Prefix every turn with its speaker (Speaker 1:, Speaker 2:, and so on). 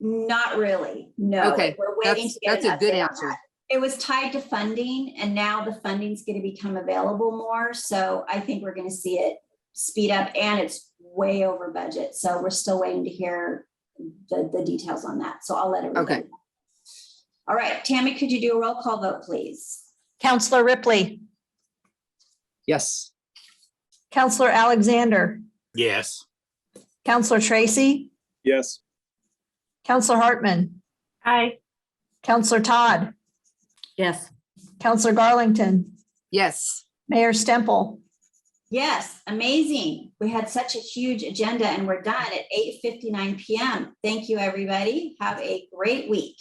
Speaker 1: Not really, no.
Speaker 2: Okay,
Speaker 1: We're waiting
Speaker 2: That's,
Speaker 1: to get
Speaker 2: that's
Speaker 1: an
Speaker 2: a good
Speaker 1: update on
Speaker 2: answer.
Speaker 1: that. It was tied to funding and now the funding's going to become available more. So I think we're going to see it speed up and it's way over budget. So we're still waiting to hear the, the details on that. So I'll let everybody.
Speaker 2: Okay.
Speaker 1: know. All right, Tammy, could you do a roll call vote, please?
Speaker 3: Counselor Ripley,
Speaker 4: Yes.
Speaker 3: Counselor Alexander,
Speaker 5: Yes.
Speaker 3: Counselor Tracy,
Speaker 6: Yes.
Speaker 3: Counselor Hartman. Aye. Counselor Todd,
Speaker 2: Yes.
Speaker 3: Counselor Garlington,
Speaker 2: Yes.
Speaker 3: Mayor Stemple.
Speaker 1: Yes, amazing. We had such a huge agenda and we're done at eight fifty-nine PM. Thank you, everybody. Have a great week.